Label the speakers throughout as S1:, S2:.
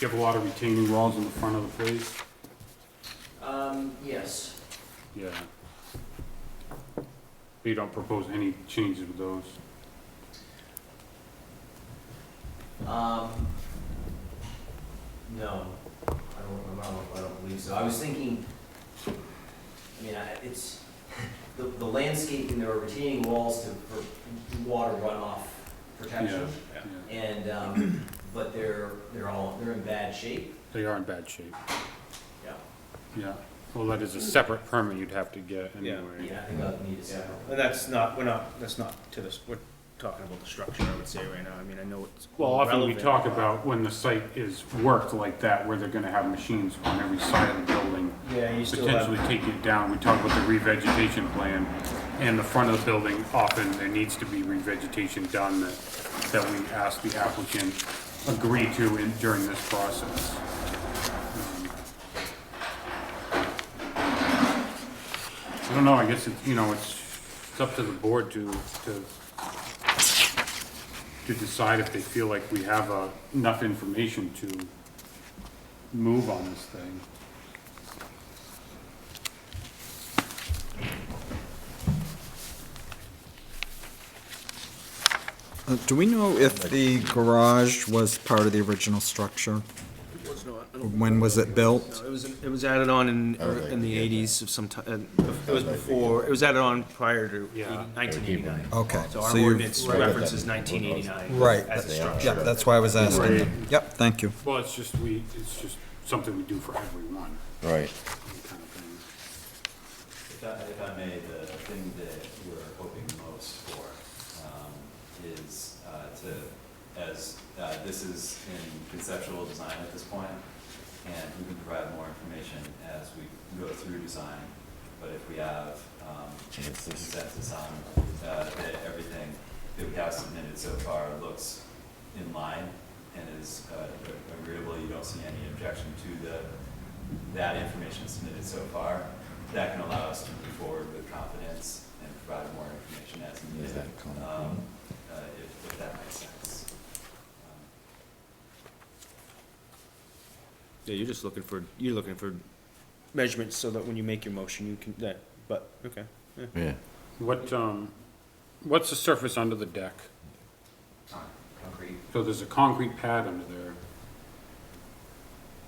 S1: you have a lot of retaining walls in the front of the place?
S2: Um, yes,
S1: Yeah. You don't propose any changes with those?
S2: um, no, I don't, I don't, I don't believe so. I was thinking, I mean, I, it's, the, the landscaping, there are retaining walls to, for water runoff protection.
S1: Yeah.
S2: And, um, but they're, they're all, they're in bad shape,
S1: They are in bad shape,
S2: yeah.
S1: yeah. Well, that is a separate permit you'd have to get
S3: Yeah.
S1: anyway.
S2: Yeah, I think I'd need a
S3: Yeah,
S2: second.
S3: and that's not, we're not, that's not to this, we're talking about the structure, I would say right now, I mean, I know it's.
S1: Well, often we
S3: relevant,
S1: talk
S3: but-
S1: about when the site is worked like that, where they're gonna have machines on every side of the building,
S3: Yeah, you still
S1: potentially
S3: have,
S1: taking it down. We talk about the revegetation plan, and the front of the building, often there needs to be revegetation done that, that we ask the applicant agree to in, during this process. Um, I don't know, I guess it's, you know, it's, it's up to the board to, to, to decide if they feel like we have, uh, enough information to move on this thing.
S4: Uh, Do we know if the garage was part of the original structure?
S3: it was not, I don't-
S4: When was it built?
S3: no, it was, it was added on in,
S5: I would like
S3: in
S5: to
S3: the
S5: get that.
S3: eighties of some ti- uh, it was
S5: I'd like to
S3: before, it was added on prior to
S1: Yeah.
S3: nineteen eighty-nine.
S4: Okay.
S3: So our
S4: you-
S3: ordinance
S5: Right.
S3: references nineteen eighty-nine.
S4: Right.
S3: As a
S4: Yeah,
S3: structure.
S4: that's why I was asking. Yep, thank you.
S1: Well, it's just we, it's just something we do for everyone,
S5: Right.
S1: kind of thing.
S6: If I, if I may, the thing that we're hoping most for um, is uh, to, as, uh, this is in conceptual design at this point, and we can provide more information as we go through design, but if we have um, consensus on uh, that everything that we have submitted so far looks in line and is uh, agreeable, you don't see any objection to the, that information submitted so far, that can allow us to move forward with confidence and provide more information as
S5: Is
S6: needed,
S5: that common?
S6: um, uh, if, if that makes sense. Um,
S3: Yeah, you're just looking for, you're looking for measurements so that when you make your motion, you can, that, but, okay.
S5: Yeah.
S1: What, um, what's the surface under the deck?
S6: con- Concrete,
S1: So there's a concrete pad under there.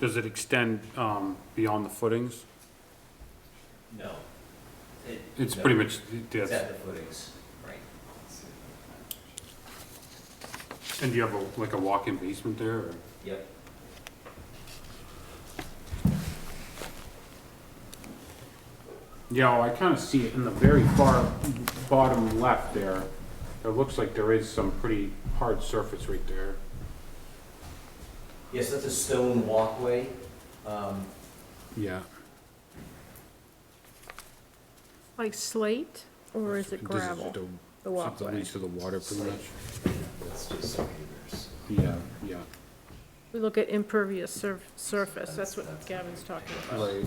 S1: Does it extend, um, beyond the footings?
S6: no.
S2: It-
S1: It's pretty much, that's,
S2: It's at the footings, right.
S6: Let's see if I can-
S1: and do you have a, like a walk-in basement there, or?
S2: Yep.
S1: Yeah, well, I kinda see it in the very far bottom left there. It looks like there is some pretty hard surface right there.
S2: Yes, that's a stone walkway, um,
S1: Yeah.
S7: Like slate, or is it gravel? The
S1: Something
S7: walkway.
S1: leads to the water pretty much.
S6: It's just meters.
S1: Yeah, yeah.
S7: We look at impervious sur- surface, that's what Gavin's talking about.
S1: Right.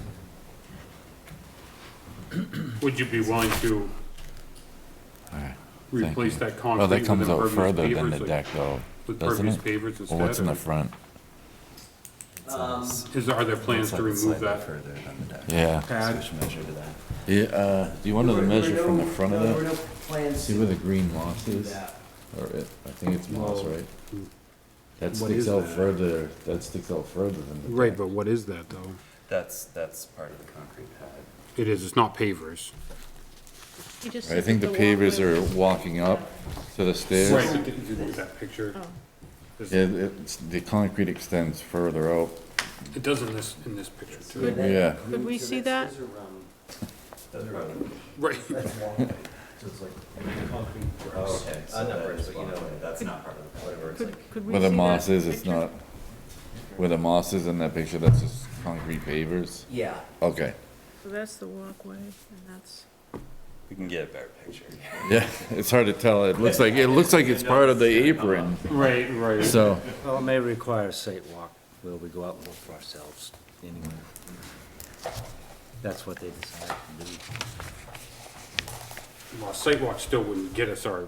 S1: Would you be willing to
S5: All right. Thank
S1: replace
S5: you.
S1: that
S5: Well,
S1: concrete
S5: Oh, that
S1: with
S5: comes out
S1: impervious
S5: further than the
S1: pavers? like-
S5: deck though,
S1: With
S5: doesn't
S1: impervious
S5: it?
S1: pavers
S5: Well, what's in the
S1: instead?
S5: front?
S2: um,
S1: or- Is, are there plans to remove that?
S6: Further than the deck.
S5: Yeah.
S1: pad?
S6: Switch measure to that.
S5: Yeah, uh, do you want to
S2: There were- there
S5: measure
S2: were
S5: from
S2: no-
S5: the front of
S2: no, There
S5: that?
S2: were no plans
S5: See
S2: to
S5: where the green moss
S2: do
S5: is?
S2: that.
S5: Or it, I think it's
S1: Well,
S5: moss,
S1: hmm.
S5: right? That
S1: what is
S5: sticks out
S1: that?
S5: further, that sticks out further than the deck.
S1: Right, but what is that though?
S6: That's, that's part of the concrete pad.
S1: It is, it's not pavers.
S7: You just
S5: I
S7: look
S5: think the
S7: at
S5: pavers
S7: walkway.
S5: are walking up to the stairs.
S1: Right, but did you look at that picture?
S7: Oh.
S5: Yeah, it's, the concrete extends further out.
S1: It does in this, in this picture too.
S2: Good.
S5: Yeah.
S7: Could we see that?
S2: Those are, um,
S6: Those are
S1: Right.
S2: That's walkway, so it's like concrete
S6: Oh,
S2: bricks.
S6: okay,
S2: Uh,
S6: so
S2: not
S6: that
S2: bricks,
S6: is
S2: but you know,
S6: walkway, that's not part of the, whatever it's like.
S7: Could, could we see
S5: Where
S7: that?
S5: the moss is, it's
S7: picture?
S5: not, where the moss is in that picture, that's just concrete pavers.
S2: Yeah,
S5: Okay,
S7: So that's the walkway, and that's,
S6: We can get a better picture.
S5: yeah, it's hard to tell. It looks like, it looks like it's part of the apron,
S1: Right, right.
S5: so.
S8: Well, it may require a site walk, where we go out and look for ourselves, anyway. That's what they decide to do.
S1: Well, a sidewalk still wouldn't get us our